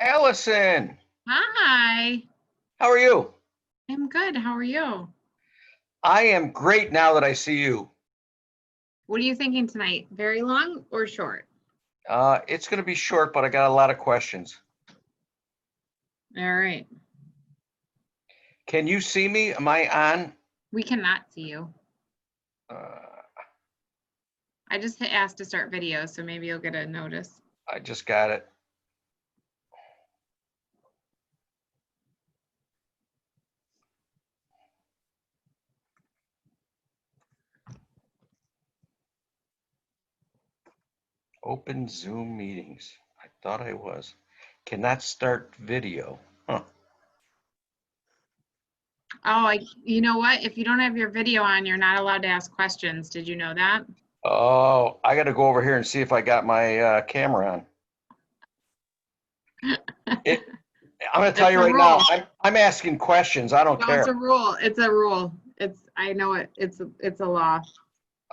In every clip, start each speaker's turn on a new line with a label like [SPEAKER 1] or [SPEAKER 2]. [SPEAKER 1] Allison,
[SPEAKER 2] Hi,
[SPEAKER 1] how are you?
[SPEAKER 2] I'm good. How are you?
[SPEAKER 1] I am great now that I see you.
[SPEAKER 2] What are you thinking tonight? Very long or short?
[SPEAKER 1] Uh, it's gonna be short, but I got a lot of questions.
[SPEAKER 2] All right,
[SPEAKER 1] Can you see me? Am I on?
[SPEAKER 2] we cannot see you.
[SPEAKER 1] Uh,
[SPEAKER 2] I just hit ask to start video, so maybe you'll get a notice.
[SPEAKER 1] I just got it. Open Zoom meetings. I thought I was. Cannot start video.
[SPEAKER 2] Oh, I, you know what? If you don't have your video on, you're not allowed to ask questions. Did you know that?
[SPEAKER 1] Oh, I gotta go over here and see if I got my uh, camera on. It- I'm gonna tell
[SPEAKER 2] That's
[SPEAKER 1] you
[SPEAKER 2] a
[SPEAKER 1] right now,
[SPEAKER 2] rule.
[SPEAKER 1] I'm, I'm asking questions. I don't
[SPEAKER 2] No, it's a
[SPEAKER 1] care.
[SPEAKER 2] rule. It's a rule. It's, I know it. It's, a- it's a law.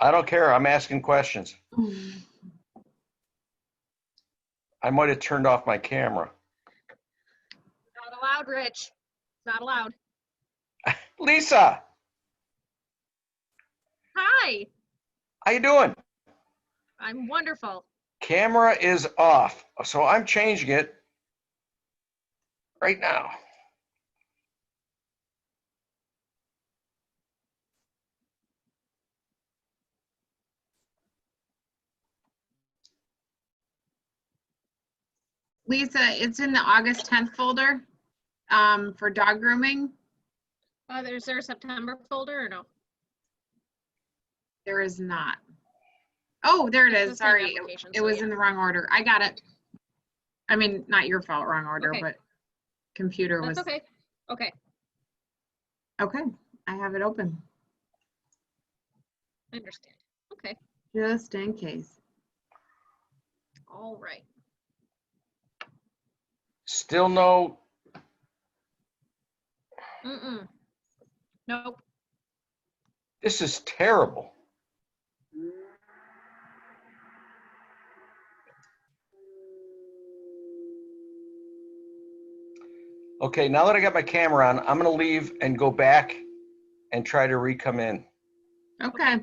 [SPEAKER 1] I don't care. I'm asking questions. I might have turned off my camera.
[SPEAKER 3] Not allowed, Rich. It's not allowed.
[SPEAKER 1] Lisa,
[SPEAKER 3] Hi,
[SPEAKER 1] how you doing?
[SPEAKER 3] I'm wonderful.
[SPEAKER 1] Camera is off, so I'm changing it right now.
[SPEAKER 2] Lisa, it's in the August 10th folder um, for dog grooming.
[SPEAKER 3] Uh, there's there a September folder or no?
[SPEAKER 2] There is not. Oh, there it
[SPEAKER 3] It's the
[SPEAKER 2] is.
[SPEAKER 3] same
[SPEAKER 2] Sorry, it-
[SPEAKER 3] application,
[SPEAKER 2] it
[SPEAKER 3] so
[SPEAKER 2] was
[SPEAKER 3] yeah.
[SPEAKER 2] in the wrong order. I got it. I mean, not your fault, wrong order,
[SPEAKER 3] Okay.
[SPEAKER 2] but computer was,
[SPEAKER 3] That's okay. Okay,
[SPEAKER 2] okay, I have it open,
[SPEAKER 3] I understand. Okay,
[SPEAKER 2] just in case.
[SPEAKER 3] all right.
[SPEAKER 1] Still no,
[SPEAKER 3] Mm-mm. Nope.
[SPEAKER 1] this is terrible. Okay, now that I got my camera on, I'm gonna leave and go back and try to re-come in.
[SPEAKER 2] Okay,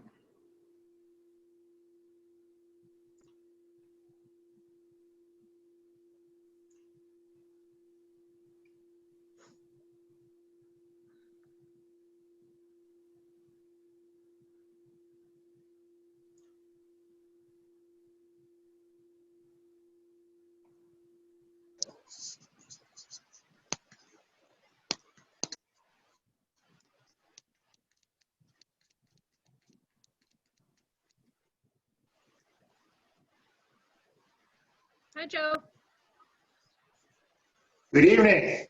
[SPEAKER 3] Hi, Joe.
[SPEAKER 4] Good evening.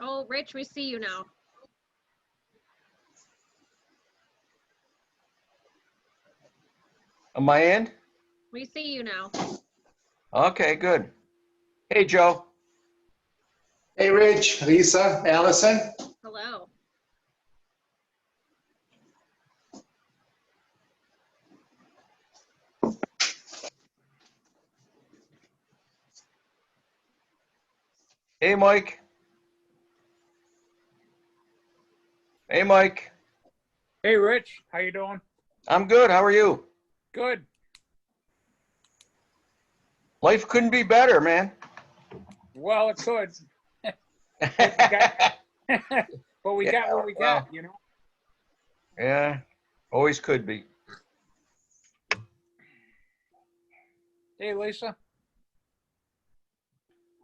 [SPEAKER 3] Oh, Rich, we see you now.
[SPEAKER 1] Am I in?
[SPEAKER 3] We see you now.
[SPEAKER 1] Okay, good. Hey, Joe.
[SPEAKER 4] Hey, Rich, Lisa, Allison.
[SPEAKER 3] Hello.
[SPEAKER 1] Hey, Mike. Hey, Mike.
[SPEAKER 5] Hey, Rich, how you doing?
[SPEAKER 1] I'm good. How are you?
[SPEAKER 5] Good.
[SPEAKER 1] Life couldn't be better, man.
[SPEAKER 5] Well, it could, but we got what
[SPEAKER 1] Yeah,
[SPEAKER 5] we got, you know?
[SPEAKER 1] yeah, always could be.
[SPEAKER 5] Hey, Lisa,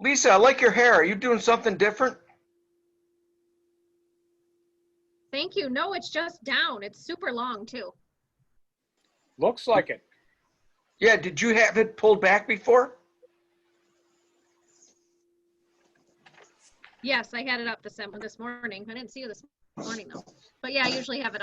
[SPEAKER 1] Lisa, I like your hair. Are you doing something different?
[SPEAKER 3] Thank you. No, it's just down. It's super long too.
[SPEAKER 5] looks like it.
[SPEAKER 1] Yeah, did you have it pulled back before?
[SPEAKER 3] Yes, I had it up this, this morning. I didn't see you this morning though. But yeah, I usually have it up.